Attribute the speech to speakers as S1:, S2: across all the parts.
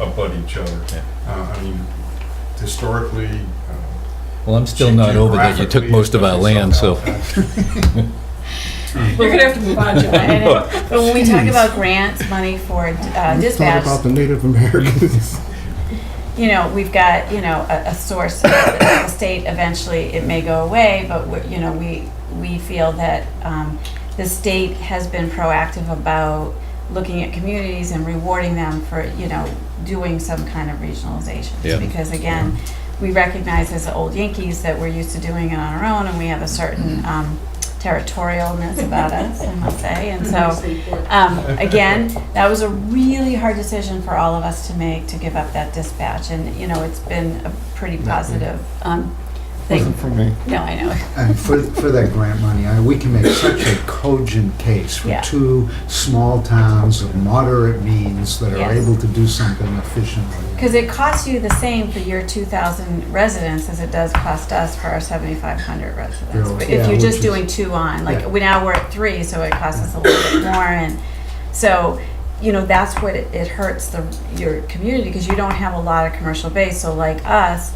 S1: abut each other.
S2: Yeah.
S1: Uh, I mean, historically. uh,
S2: Well, I'm still not over that you took most of our land, so.
S3: You're gonna have to move on, Joanne.
S4: And it- But when we talk about grants, money for uh,
S5: Let's talk
S4: dispatch,
S5: about the Native Americans.
S4: you know, we've got, you know, a, a source, the state eventually, it may go away, but, we- you know, we, we feel that um, the state has been proactive about looking at communities and rewarding them for, you know, doing some kind of regionalization.
S2: Yeah.
S4: Because again, we recognize as old Yankees that we're used to doing it on our own, and we have a certain um, territorialness about us, I must say, and so. Um, again, that was a really hard decision for all of us to make to give up that dispatch, and you know it's been a pretty positive um, thing.
S6: Mm-hmm.
S5: Wasn't for me.
S4: No, I know.
S7: And for, for that grant money, I, we can make such a cogent case for
S4: Yeah.
S7: two small towns of moderate means that are
S4: Yes.
S7: able to do something efficiently.
S4: Because it costs you the same for your 2,000 residents as it does cost us for our 7,500 residents.
S7: Yeah,
S4: But
S7: yeah,
S4: if you're
S7: which
S4: just
S7: is-
S4: doing two on, like,
S7: Yeah.
S4: we now we're at three, so it costs us a little bit more, and so, you know, that's what it it hurts the, your community, because you don't have a lot of commercial base, so like us,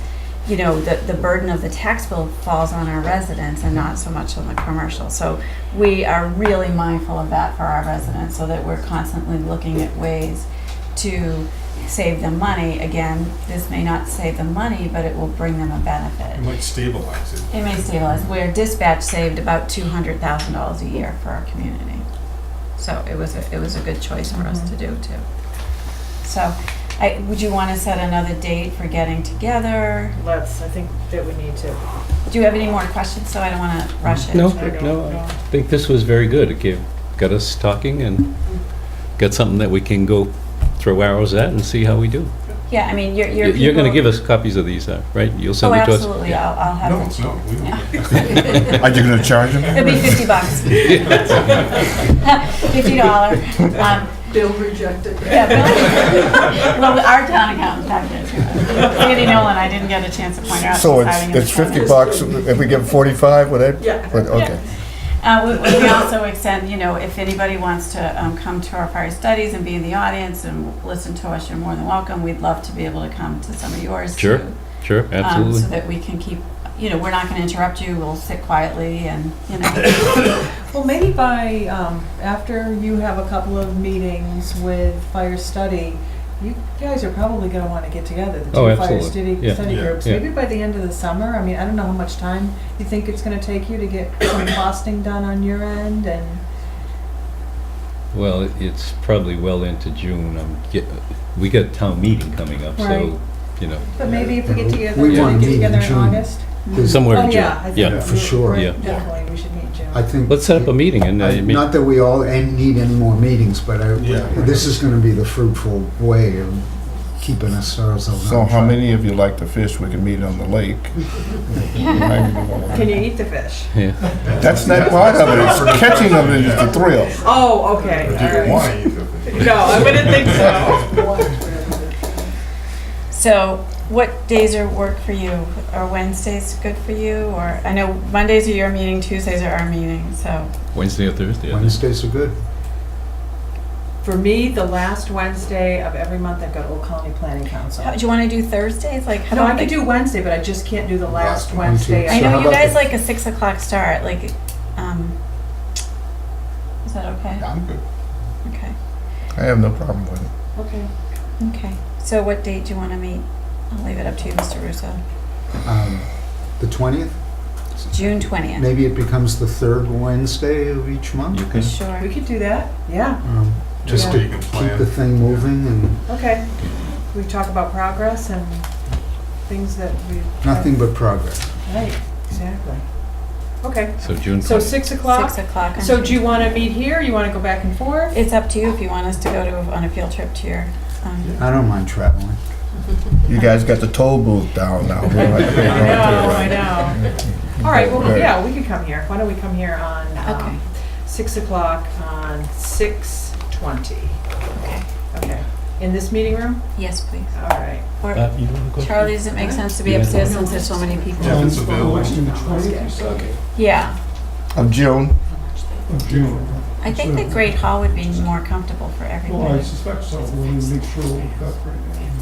S4: you know, the, the burden of the tax bill falls on our residents and not so much on the commercial. So we are really mindful of that for our residents, so that we're constantly looking at ways to save them money. Again, this may not save them money, but it will bring them a
S1: It
S4: benefit.
S1: might stabilize it.
S4: It may stabilize, where dispatch saved about two hundred thousand dollars a year for our community. So it was, a- it was a good choice for us to do too. So, I, would you wanna set another date for getting together?
S3: Let's, I think that we need to.
S4: Do you have any more questions, so I don't wanna rush it?
S2: No,
S3: I don't
S2: no,
S3: know.
S2: I think this was very good. It gave, got us talking and got something that we can go throw arrows at and see how we do.
S4: Yeah, I mean, your, your
S2: Y- You're gonna
S4: people-
S2: give us copies of these, uh, right? You'll
S4: Oh,
S2: send it to us?
S4: absolutely, I'll, I'll have
S1: No,
S4: it.
S1: no, we don't.
S5: Are you gonna charge them?
S4: It'll be fifty bucks. Fifty dollar. Um,
S3: Bill rejected.
S4: Yeah, Bill- well, our town accountant had it. Andy Nolan, I didn't get a chance to point her out.
S6: So
S4: she's
S6: it's,
S4: hiding in
S6: it's
S4: the corner.
S6: fifty bucks, if we give forty-five, would it?
S3: Yeah.
S6: But, okay.
S4: Uh, we, we also extend, you know, if anybody wants to, um, come to our fire studies and be in the audience and listen to us, you're more than welcome. We'd love to be able to come to some of yours too.
S2: Sure, sure,
S4: um,
S2: absolutely.
S4: So that we can keep, you know, we're not gonna interrupt you, we'll sit quietly and, you know,
S8: Well, maybe by, um, after you have a couple of meetings with fire study, you guys are probably gonna wanna get together, the
S2: Oh,
S8: two fire
S2: absolutely.
S8: study,
S2: Yeah.
S8: study
S1: Yeah.
S8: groups.
S2: Yeah.
S8: Maybe by the end of the summer, I mean, I don't know how much time you think it's gonna take you to get some costing done on your end and,
S2: Well, it- it's probably well into June. I'm get- We got a town meeting coming up, so,
S8: Right.
S2: you know,
S8: but maybe if we get together,
S7: We
S8: we
S7: wanna
S8: get
S7: meet in
S8: together in
S7: June.
S8: August.
S2: somewhere in
S8: Oh,
S2: June.
S8: yeah, I
S2: Yeah.
S8: think.
S7: For sure.
S8: we're-
S2: Yeah.
S8: Definitely, we should meet in June.
S7: I think.
S2: Let's set up a meeting and, uh,
S7: I-
S2: meet-
S7: Not that we all en- need any more meetings, but I,
S1: Yeah.
S7: this is gonna be the fruitful way of keeping ourselves on.
S6: So how many of you like to fish? We can meet on the lake.
S3: Can you eat the fish?
S2: yeah,
S6: That's not part of it, it's the catching of it is the thrill.
S3: Oh, okay,
S1: Or do you
S3: all right.
S1: want to eat the thing?
S3: No, I wouldn't think so.
S4: so what days are work for you? Are Wednesdays good for you, or, I know Mondays are your meeting, Tuesdays are our meeting, so.
S2: Wednesday or Thursday. I think.
S7: Wednesdays are good.
S8: For me, the last Wednesday of every month, I've got Old Colony Planning Council.
S4: How, do you wanna do Thursdays, like? how
S8: No, I
S4: about,
S8: could
S4: like-
S8: do Wednesday, but I just can't do the last
S7: Last Wednesday.
S8: Wednesday.
S4: I
S7: So
S4: know
S7: how
S4: you
S7: about
S4: guys
S7: the-
S4: like a six o'clock start, like, um, is that okay?
S1: I'm good.
S4: Okay,
S6: I have no problem with it.
S8: Okay.
S4: okay. So what date do you wanna meet? I'll leave it up to you, Mr. Russo.
S7: Um, The twentieth,
S4: June twentieth,
S7: maybe it becomes the third Wednesday of each month.
S2: You can,
S8: We
S4: sure.
S8: could do that, yeah,
S7: Um, Just
S1: Just so
S7: to
S1: you can
S7: keep the
S1: plan.
S7: thing moving and
S8: okay. We talk about progress and things that we.
S7: nothing but progress.
S8: Right, exactly. Okay,
S2: so June
S8: so
S2: 20th.
S8: six
S4: Six
S8: o'clock.
S4: o'clock. on
S8: So do
S4: June-
S8: you want to meet here, you want to go back and forth?
S4: It's up to you if you want us to go to, on a field trip to your, um,
S7: I don't mind traveling.
S6: You guys got the toll booth down now.
S8: I know, I know. All right, well, yeah, we could come here. Why don't we come here on,
S4: Okay.
S8: um, six o'clock on six twenty?
S4: okay,
S8: Okay, in this meeting room?
S4: yes, please.
S8: All right.
S4: Or,
S2: Bob, you wanna go?
S4: uh, Charlie, does it make sense to be
S2: Yeah.
S4: upstairs since there's so many people?
S1: Yeah, if it's available.
S4: Yeah,
S6: Of June,
S4: I think the Great Hall would be more comfortable for everybody.
S9: Well, I suspect so, we'll make sure we've got,